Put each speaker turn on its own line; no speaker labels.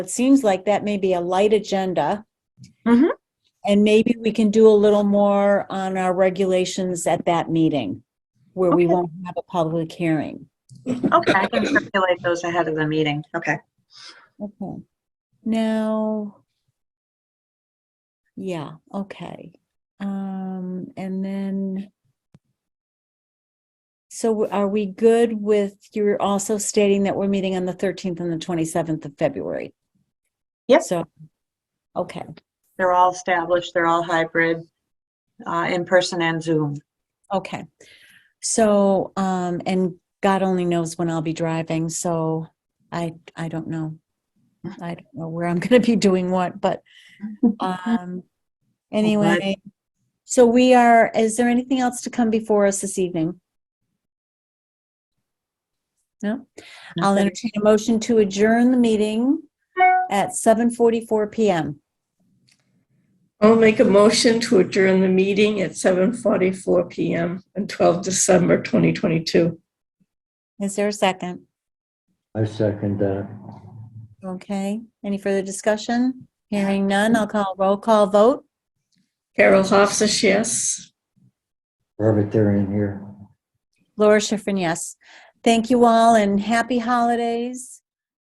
It seems like that may be a light agenda.
Mhm.
And maybe we can do a little more on our regulations at that meeting where we
Okay.
won't have a public hearing.
Okay, I can circulate those ahead of the meeting. Okay.
Okay. Now, yeah, okay. Um, and then, so are we good with, you're also stating that we're meeting on the 13th and the 27th of February?
Yep.
So, okay,
They're all established, they're all hybrid, uh, in person and Zoom.
okay. So, um, and God only knows when I'll be driving, so I, I don't know. I don't know where I'm gonna be doing what, but Um, anyway, so we are, is there anything else to come before us this evening? No? I'll entertain a motion to adjourn the meeting at 7:44 PM.
I'll make a motion to adjourn the meeting at 7:44 PM on 12 December 2022.
Is there a second?
I second that.
Okay, any further discussion? Hearing none, I'll call roll call vote.
Carol Hofstas, yes.
Robert, they're in here.
Laura Schifrin, yes. Thank you all and happy holidays.